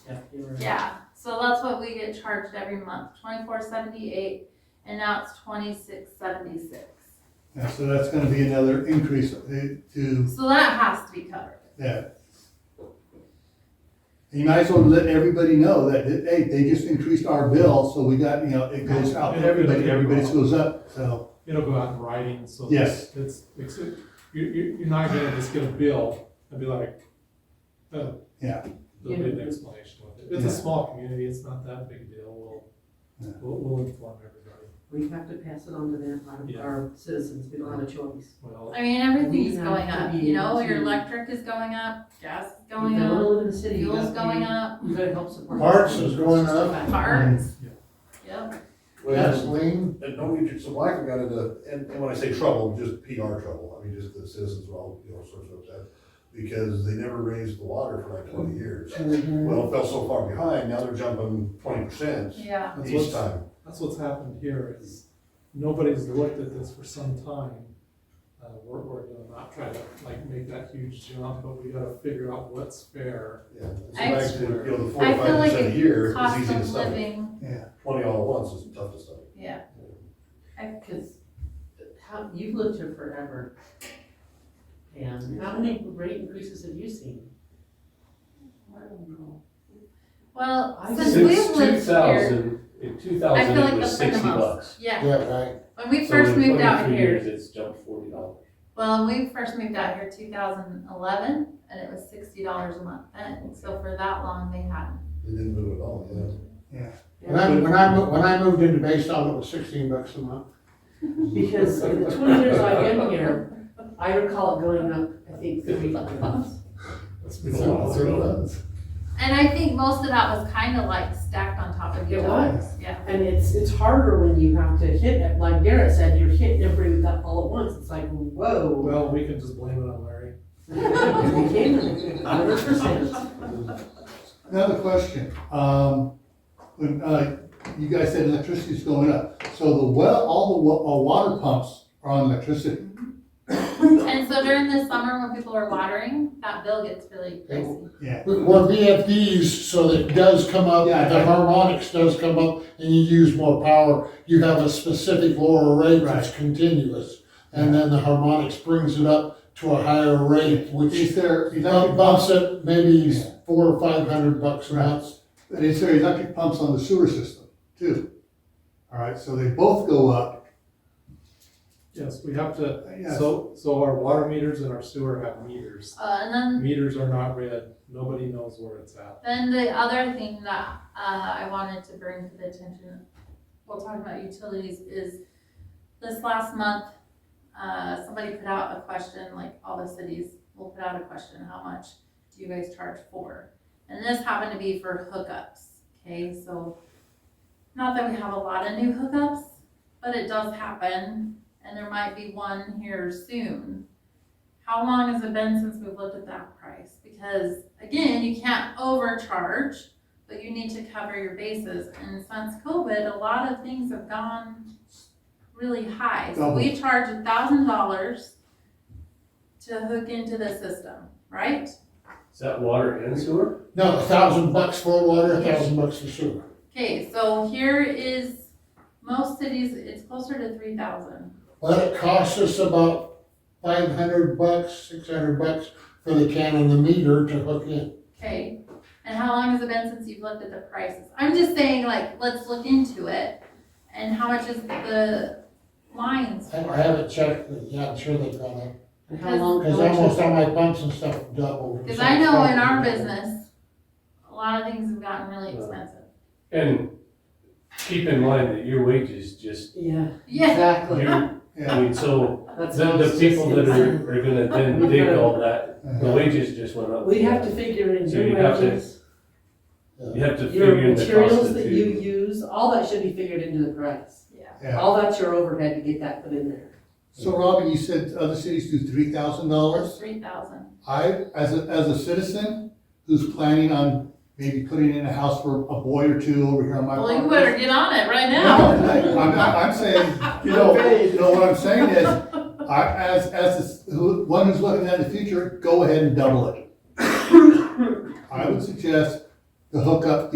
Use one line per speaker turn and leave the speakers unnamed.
Yeah, so that's what we get charged every month, twenty-four seventy-eight, and now it's twenty-six seventy-six.
Yeah, so that's gonna be another increase uh, to
So that has to be covered.
that. And you might as well let everybody know that, hey, they just increased our bill, so we got, you know, it goes out to everybody, everybody's goes up, so,
It'll go out in writing, so.
Yes.
It's, it's, you, you, you're not gonna just get a bill and be like, oh.
Yeah.
There'll be an explanation with it. It's
Yeah.
a small community, it's not that big a deal,
Yeah.
we'll, we'll, we'll inform everybody.
We have to pass it on to them,
Yeah.
our, our citizens, we don't have a choice.
Well,
I mean, everything's
We have
going
to
up,
be
you know,
able
your
to-
electric is going up, gas is
You
going
gotta
up,
live in the city, you
fuel's
gotta be-
going up,
You gotta help support. the
Parts
city.
is going
It's just
up.
about-
parts.
Yeah.
Yep,
Gasoline, and don't get your, so Michael got into, and, and when I say trouble, just PR trouble, I mean, just the citizens were all, you know, sort of upset. Because they never raised the water for like twenty years. Well, it fell so far behind, now they're jumping twenty percent
yeah,
that's
each
what's,
time.
that's what's happened here is nobody's looked at this for some time. Uh, we're, we're gonna not try to like make that huge jump, but we gotta figure out what's fair.
Yeah, it's
I-
back to, you know, the
I
forty-five
feel like
percent a year
it
is
cost
easy to
of
stomach.
living,
yeah.
Twenty all at once is tough to stomach.
yeah,
Cause how, you've lived here forever. And how many rate increases have you seen? I don't know.
well,
I-
since
Since
we've lived here,
in two thousand,
I feel like
it
that's
was
been the
sixty
most,
bucks.
yeah,
Yeah, right.
when we
So
first
in
moved out
23
here.
years, It's jumped forty dollars.
Well, when we first moved out here, two thousand eleven, and it was sixty dollars a month then, so for that long, they hadn't.
They didn't move at all, yeah.
When I, when I, mo- when I moved into Bayside, it was sixteen bucks a month.
Because in the twenty years I've been here, I recall it going up, I think, three times.
That's
been a lot.
That's what it was.
And I think most of that was kind of like stacked on top of each
It
other.
was.
Yeah,
And it's, it's harder when you have to hit, it. like Garrett said, you're hitting everybody with that all at once, it's like, whoa.
Well, we can just blame it on Larry.
We came in, hundred percent.
Another question, um, when, uh, you guys said electricity's going up, so the well, all the wa- uh, water pumps are on electricity.
and so during the summer when people are watering, that bill gets really crazy.
We're VFDs, so that it does come up,
Yeah.
the harmonics does come up, and you use more power. You have a specific lower rate that's continuous, and then the harmonics brings it up to a higher rate,
Is
which
there electric
bump-
pumps,
bumps it maybe
Yeah.
four or five hundred bucks a
Right.
month.
and is there electric pumps on the sewer system too? All right, so they both go up,
Yes, we have to,
Yes.
so, so our water meters and our sewer have meters.
Uh, and then
Meters are not read, nobody knows where it's at.
Then the other thing that uh, I wanted to bring to the attention, while talking about utilities, is this last month, uh, somebody put out a question, like all the cities will put out a question, how much do you guys charge for? And this happened to be for hookups, okay, so not that we have a lot of new hookups, but it does happen, and there might be one here soon. How long has it been since we've looked at that price? Because again, you can't overcharge, but you need to cover your bases. And since COVID, a lot of things have gone really high. So we charge a thousand dollars to hook into the system, right?
Is that water and sewer?
No, a thousand bucks for water, a
Yeah.
thousand bucks for sewer.
Okay, so here is, most cities, it's closer to three thousand.
Well, it costs us about five hundred bucks, six hundred bucks for the can and the meter to hook in.
Okay, and how long has it been since you've looked at the prices? I'm just saying, like, let's look into it, and how much is the lines
I
for?
haven't checked, but yeah, I'm sure they've gone up,
And how long?
because almost all my pumps and stuff doubled.
Cause I know in our business, a lot of things have gotten really expensive.
And keep in mind that your wages just,
Yeah,
Yeah,
exactly.
you're,
yeah.
I mean, so
That's
the,
what I
the
was
people
just
that
saying.
are, are gonna then dig all that, the
Uh-huh.
wages just went up.
We have to figure in
So
your
you have to-
wages,
You have to
your
figure in the cost
materials
of
that you
two.
use, all that should be figured into the price.
yeah,
Yeah.
All that's your overhead to get that put in there.
So Robin, you said other cities do three thousand dollars?
three thousand.
I, as a, as a citizen who's planning on maybe putting in a house for a boy or two over here on my
Well,
property.
you better get on it right
No,
now.
no, I'm, I'm I'm saying, you know, you know, what I'm saying is, I, as, as this- who- one who's looking at the future, go ahead and double it. I would suggest the hookup